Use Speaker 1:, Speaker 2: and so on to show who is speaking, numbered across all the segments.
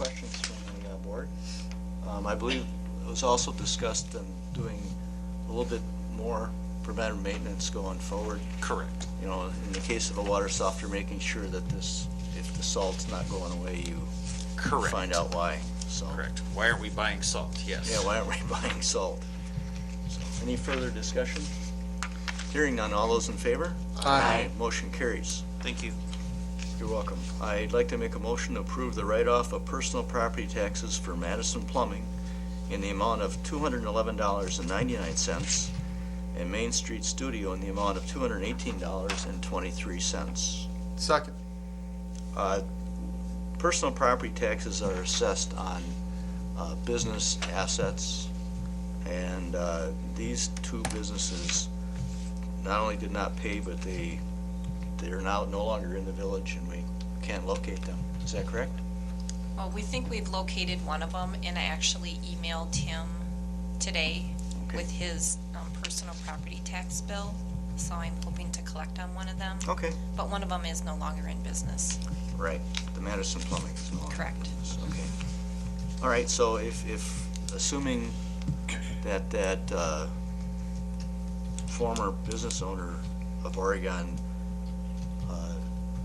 Speaker 1: uh, Um, I believe it was also discussed in doing a little bit more preventive maintenance going forward.
Speaker 2: Correct.
Speaker 1: You know, in the case of a water softener, making sure that this, if the salt's not going away, you
Speaker 2: Correct.
Speaker 1: find out why, so.
Speaker 2: Correct. Why aren't we buying salt? Yes.
Speaker 1: Yeah, why aren't we buying salt? So, Any further discussion? Hearing none, all those in favor? Aye. Motion carries.
Speaker 2: Thank you.
Speaker 1: You're welcome. I'd like to make a motion to approve the write-off of personal property taxes for Madison Plumbing in the amount of $211.99 and Main Street Studio in the amount of $218.23.
Speaker 3: Second.
Speaker 1: Uh, Personal property taxes are assessed on uh, business assets, and uh, these two businesses not only did not pay, but they, they're now no longer in the village, and we can't locate them. Is that correct?
Speaker 4: Well, we think we've located one of them, and I actually emailed him today
Speaker 1: Okay.
Speaker 4: with his um, personal property tax bill, so I'm hoping to collect on one of them.
Speaker 1: Okay.
Speaker 4: But one of them is no longer in business.
Speaker 1: Right, the Madison Plumbing. is no longer
Speaker 4: Correct.
Speaker 1: in business. Okay. All right, so if, if, assuming that that uh, former business owner of Oregon uh,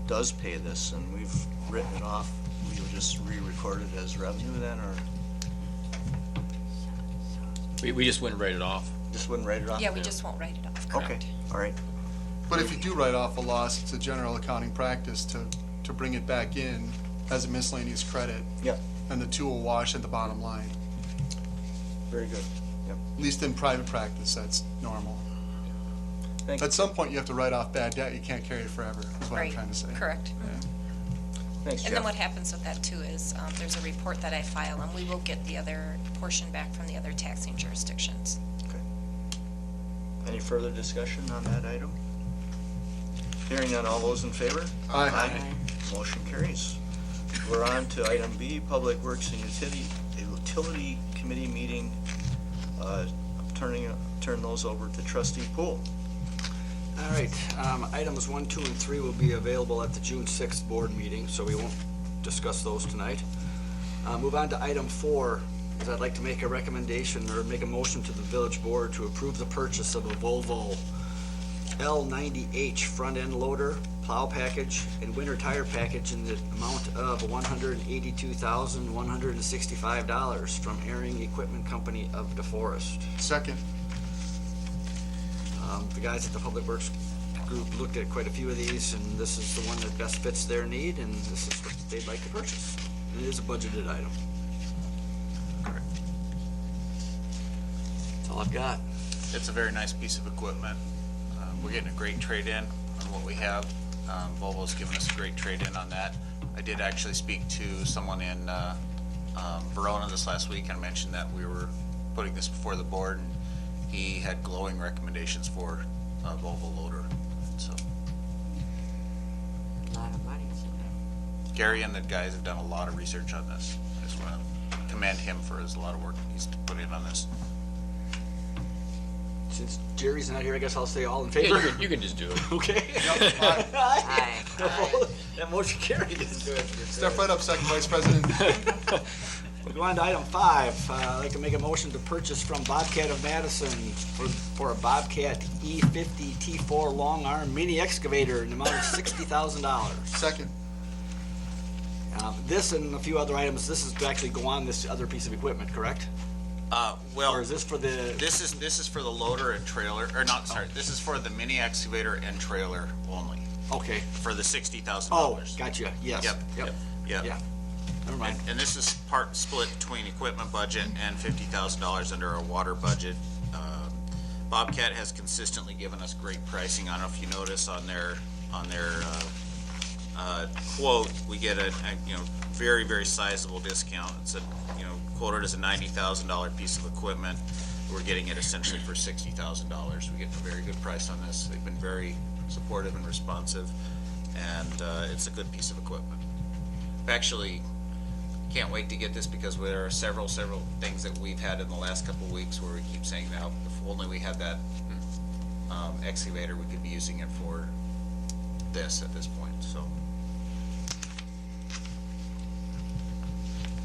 Speaker 1: does pay this, and we've written it off, we would just re-record it as revenue then, or
Speaker 5: We, we just wouldn't write it off.
Speaker 1: just wouldn't write it off?
Speaker 4: Yeah, we just won't write it off,
Speaker 1: Okay,
Speaker 4: correct?
Speaker 1: all right,
Speaker 3: But if you do write off a loss, it's a general accounting practice to, to bring it back in as a miscellaneous credit,
Speaker 1: yeah,
Speaker 3: and the two will wash at the bottom line.
Speaker 1: very good.
Speaker 3: At least in private practice, that's normal.
Speaker 1: Thank you.
Speaker 3: At some point, you have to write off bad debt. You can't carry it forever, is what I'm
Speaker 4: Right,
Speaker 3: trying to say.
Speaker 4: correct.
Speaker 1: Thanks,
Speaker 4: And then
Speaker 1: Jeff.
Speaker 4: what happens with that too is, um, there's a report that I file, and we will get the other portion back from the other taxing jurisdictions.
Speaker 1: Any further discussion on that item? Hearing none, all those in favor?
Speaker 3: Aye.
Speaker 1: Motion carries. We're on to item B, Public Works and Utility, Utility Committee meeting. Uh, I'm Turning, turn those over to trustee Poole.
Speaker 6: All right, um, items one, two, and three will be available at the June sixth board meeting, so we won't discuss those tonight. Uh, move on to item four, is I'd like to make a recommendation or make a motion to the village board to approve the purchase of a Volvo L ninety H front-end loader, plow package, and winter tire package in the amount of one hundred and eighty-two thousand, one hundred and sixty-five dollars from Airing Equipment Company of DeForest.
Speaker 3: Second.
Speaker 6: Um, The guys at the Public Works Group looked at quite a few of these, and this is the one that best fits their need, and this is what they'd like to purchase. And It is a budgeted item.
Speaker 2: Correct.
Speaker 6: That's all I've got.
Speaker 2: It's a very nice piece of equipment. Um, We're getting a great trade-in on what we have. Um, Volvo's given us a great trade-in on that. I did actually speak to someone in uh, um, Verona this last week and mentioned that we were putting this before the board, and he had glowing recommendations for a Volvo loader. So
Speaker 7: lot of money.
Speaker 2: Gary and the guys have done a lot of research on this. I just want to commend him for his lot of work he's put in on this.
Speaker 6: Since Jerry's not here, I guess I'll say all in
Speaker 5: Yeah, you
Speaker 6: favor.
Speaker 5: can, you can just do it.
Speaker 6: Okay?
Speaker 7: Aye.
Speaker 6: That motion carried.
Speaker 3: Step right up, Second Vice President.
Speaker 6: We go on to item five. Uh, I'd like to make a motion to purchase from Bobcat of Madison for, for a Bobcat E E50 T4 long arm mini excavator in the amount of sixty thousand dollars.
Speaker 3: Second.
Speaker 6: Uh, This and a few other items, this is to actually go on this other piece of equipment, correct?
Speaker 2: Uh, Well,
Speaker 6: Or is this for the,
Speaker 2: This is, this is for the loader and trailer, or not, sorry, this is for the mini excavator and trailer only,
Speaker 6: okay.
Speaker 2: for the sixty thousand
Speaker 6: Oh,
Speaker 2: dollars.
Speaker 6: gotcha, yes.
Speaker 2: Yep,
Speaker 6: Yep,
Speaker 2: Yeah,
Speaker 6: yeah. Never mind.
Speaker 2: and, and this is part split between equipment budget and fifty thousand dollars under our water budget. Um, Bobcat has consistently given us great pricing, I don't know if you notice on their, on their, uh, uh, quote, we get a, a, you know, very, very sizable discount. It's a, you know, quoted as a ninety thousand dollar piece of equipment. We're getting it essentially for sixty thousand dollars. We get a very good price on this. They've been very supportive and responsive, and, uh, it's a good piece of equipment. Actually, can't wait to get this because there are several, several things that we've had in the last couple of weeks where we keep saying now, if only we had that, um, excavator, we could be using it for this at this point, so.